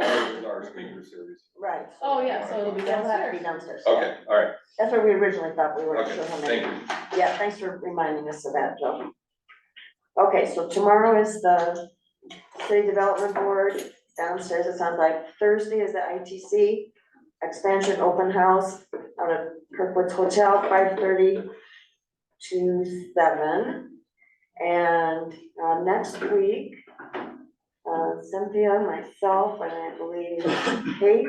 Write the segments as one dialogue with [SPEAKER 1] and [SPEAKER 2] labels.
[SPEAKER 1] our speaker series.
[SPEAKER 2] Right.
[SPEAKER 3] Oh, yeah, so it'll be
[SPEAKER 2] It'll have to be downstairs.
[SPEAKER 3] downstairs.
[SPEAKER 2] yeah.
[SPEAKER 1] Okay, all right,
[SPEAKER 2] That's what we originally thought we were gonna show
[SPEAKER 1] okay,
[SPEAKER 2] how many.
[SPEAKER 1] thank you.
[SPEAKER 2] Yeah, thanks for reminding us of that, Joe. Okay, so tomorrow is the city development board downstairs, it sounds like. Thursday is the ITC expansion open house out at Kirkwood's Hotel, five thirty to seven. And, uh, next week, uh, Cynthia, myself, and I believe Kate,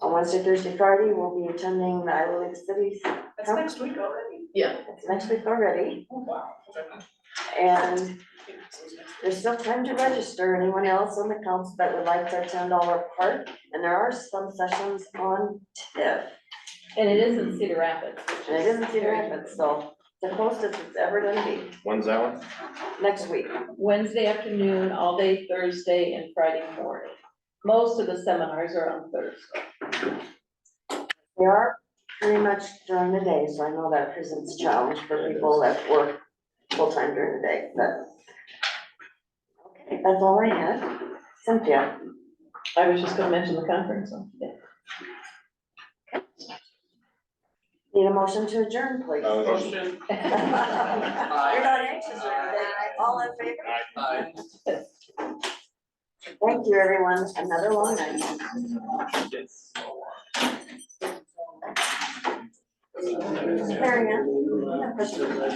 [SPEAKER 2] on Wednesday, Thursday, Friday, will be attending the Iowa Lake City
[SPEAKER 4] That's next week already.
[SPEAKER 2] it's next week already,
[SPEAKER 4] Oh, wow.
[SPEAKER 2] and there's still time to register, anyone else on the council that would like to attend all our part, and there are some sessions on TIFF.
[SPEAKER 3] And it is in Cedar Rapids, which
[SPEAKER 2] And it
[SPEAKER 3] is
[SPEAKER 2] isn't Cedar
[SPEAKER 3] very-
[SPEAKER 2] Rapids, so the closest it's ever gonna be,
[SPEAKER 5] When's that one?
[SPEAKER 2] next week.
[SPEAKER 3] Wednesday afternoon, all day Thursday and Friday morning. Most of the seminars are on Thursday.
[SPEAKER 2] They are pretty much during the day, so I know that presents a challenge for people that work full-time during the day, but. Okay, that's all I had. Cynthia,
[SPEAKER 3] I was just gonna mention the conference on today.
[SPEAKER 2] need a motion to adjourn, please.
[SPEAKER 1] Uh,
[SPEAKER 4] Motion.
[SPEAKER 2] You're not anxious or anything, all in favor? Thank you, everyone, another long night. Marion, you have a question?